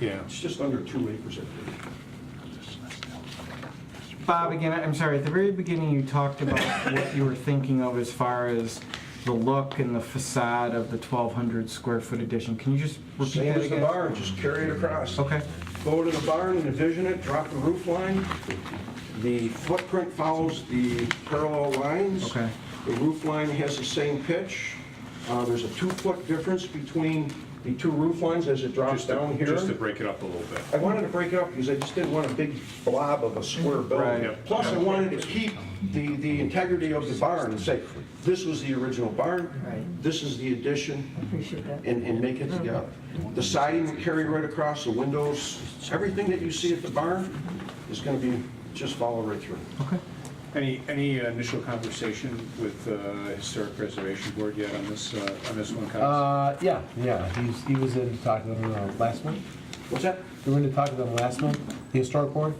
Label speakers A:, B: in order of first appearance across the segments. A: Yeah.
B: It's just under two acres, I think.
C: Bob, again, I'm sorry, at the very beginning, you talked about what you were thinking of as far as the look and the facade of the 1,200 square foot addition. Can you just repeat
B: Same
C: that
B: as the
C: again?
B: barn, just carry it across.
C: Okay,
B: Go to the barn and envision it, drop the roof line. The footprint follows the parallel lines.
C: Okay.
B: The roof line has the same pitch. Uh, There's a two-foot difference between the two roof lines as it drops
A: Just
B: down
A: to,
B: here.
A: just to break it up a little bit.
B: I wanted to break it up because I just didn't want a big blob of a square building.
A: Right.
B: Plus, I wanted to keep the, the integrity of the barn and say, this was the original barn,
D: Right.
B: this is the addition,
D: Appreciate that.
B: and, and make it together. The siding will carry right across, the windows, everything that you see at the barn is gonna be, just follow right through.
C: okay.
A: Any, any initial conversation with uh, Historic Preservation Board yet on this, uh, on this one, Cox?
E: Uh, yeah, yeah, he's, he was in to talk to them uh, last month.
B: What's that?
E: We were in to talk to them last month, the historic board.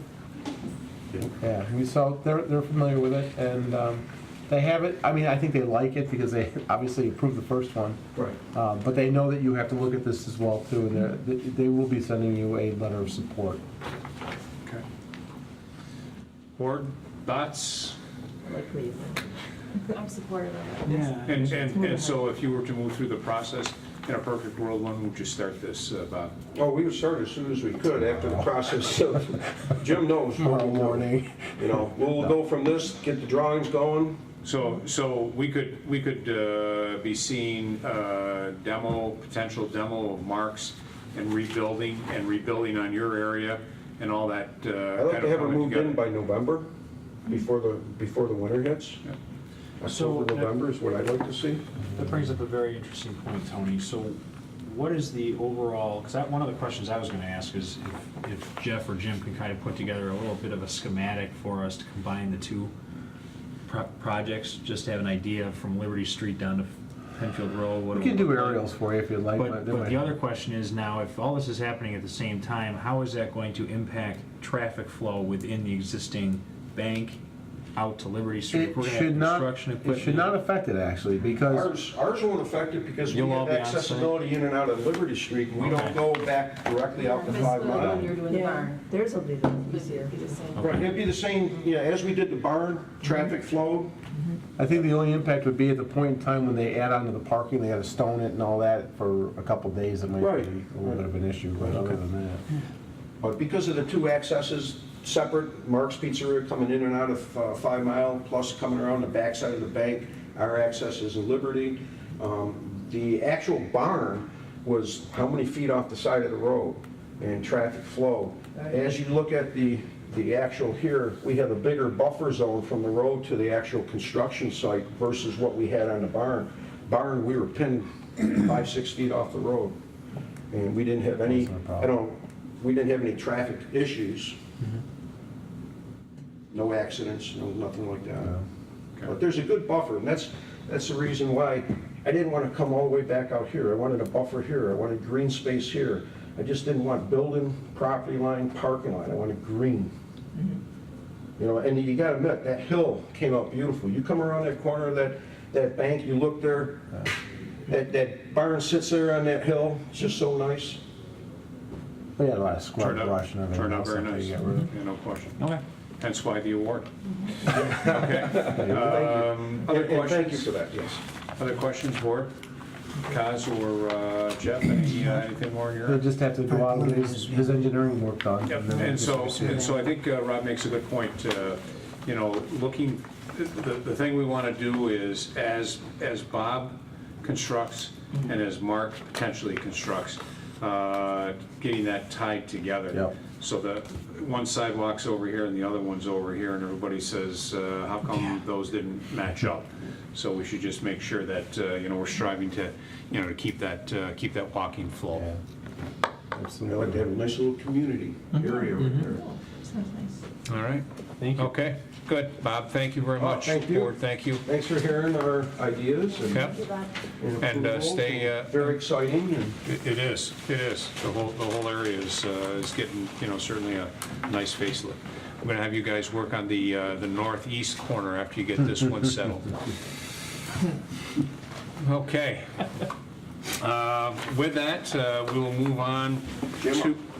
E: Yeah, we saw, they're, they're familiar with it, and, um, they have it, I mean, I think they like it because they obviously approved the first one.
B: Right.
E: Uh, but they know that you have to look at this as well too, and they're, they- they will be sending you a letter of support.
A: Okay. Board, thoughts?
D: Likely.
F: I'm supportive of it.
C: Yeah.
A: And, and, and so if you were to move through the process, in a perfect world, when would you start this, uh, Bob?
B: Well, Oh, we would start as soon as we could after the process of, Jim knows. what
E: Tomorrow
B: we do.
E: morning.
B: You know, we'll go from this, get the drawings going,
A: So, so we could, we could uh, be seeing uh, demo, potential demo of marks and rebuilding, and rebuilding on your area and all that. uh,
B: I'd like
A: kind
B: to have
A: of
B: it
A: coming
B: moved in
A: together.
B: by November, before the, before the winter hits.
G: So-
B: October, November is what I'd like to see.
G: That brings up a very interesting point, Tony. So what is the overall, because that, one of the questions I was going to ask is if- if Jeff or Jim can kind of put together a little bit of a schematic for us to combine the two pro- projects, just to have an idea from Liberty Street down to Penfield Road. what it
E: We can
G: would
E: do
G: look like.
E: aerials for you if you'd like.
G: But,
E: they
G: but
E: might-
G: the other question is now, if all this is happening at the same time, how is that going to impact traffic flow within the existing bank out to Liberty Street? If
E: It
G: we're gonna have
E: should not,
G: construction
E: it should
G: equipment-
E: not affect it actually, because
B: Ours, ours won't affect it because we
G: You'll all
B: have
G: be on site?
B: accessibility in and out of Liberty Street, and we don't
G: Okay.
B: go back directly out to
F: Miss
B: Five
F: Lou,
B: Mile.
F: You're doing the
D: Yeah,
F: barn.
D: theirs will be the easier.
F: Be the same.
B: Right, it'd be the same, yeah, as we did the barn,
F: Mhm.
B: traffic flow,
E: I think the only impact would be at the point in time when they add on to the parking, they gotta stone it and all that for a couple days, it might be a
B: Right.
E: little bit of an issue, but other than that.
B: but because of the two accesses, separate, Mark's Pizzeria coming in and out of uh, Five Mile, plus coming around the backside of the bank, our access is in Liberty. Um, The actual barn was how many feet off the side of the road and traffic flow. As you look at the, the actual here, we have a bigger buffer zone from the road to the actual construction site versus what we had on the barn. Barn, we were pinned five, six feet off the road. And we didn't have any,
E: Wasn't a
B: I
E: problem. Mm-hmm.
B: don't, we didn't have any traffic issues. No accidents, no, nothing like that. But there's a good buffer, and that's, that's the reason why I didn't want to come all the way back out here. I wanted a buffer here, I wanted green space here. I just didn't want building, property line, parking lot, I wanted green.
E: Mm-hmm.
B: You know, and you gotta admit, that hill came out beautiful. You come around that corner of that, that bank, you look there, that, that barn sits there on that hill, it's just so nice.
E: We had a lot of square
A: Turned out,
E: brush and everything.
A: turned out
E: else
A: very
E: after
A: nice,
E: you
A: yeah,
E: got rid of it.
A: no question.
G: Okay.
A: Hence why the award. Okay. Um, Other
B: And- and Thank you
A: questions,
B: for that, yes.
A: other questions, board? Kaz or uh, Jeff, any, uh, anything more in your?
E: He'll just have to go out and get his, his engineering work done.
A: Yep,
E: then
A: and
E: just
A: so,
E: proceed.
A: and so I think uh, Rob makes a good point, uh, you know, looking, the, the thing we want to do is, as, as Bob constructs
E: Mm-hmm.
A: and as Mark potentially constructs, uh, getting that tied together.
E: Yep.
A: So that one sidewalk's over here and the other one's over here, and everybody says, uh, how come those didn't match up? So we should just make sure that, uh, you know, we're striving to, you know, to keep that, uh, keep that walking flow.
E: Yeah.
B: I like to
E: Absolutely.
B: have a nice little community
A: Mm-hmm.
B: area right there.
F: Sounds nice.
A: All right.
G: Thank you.
A: Okay, good. Bob, thank you very
B: Oh,
A: much.
B: thank you.
A: Board, thank you.
B: Thanks for hearing our ideas and.
A: Yep, And, uh,
B: approval.
A: stay, uh,
B: Very exciting, and
A: it it is, it is. The whole, the whole area is, uh, is getting, you know, certainly a nice facelift. I'm gonna have you guys work on the, uh, the northeast corner after you get this one settled. Okay. Uh, With that, uh, we will move on to.
B: Jim,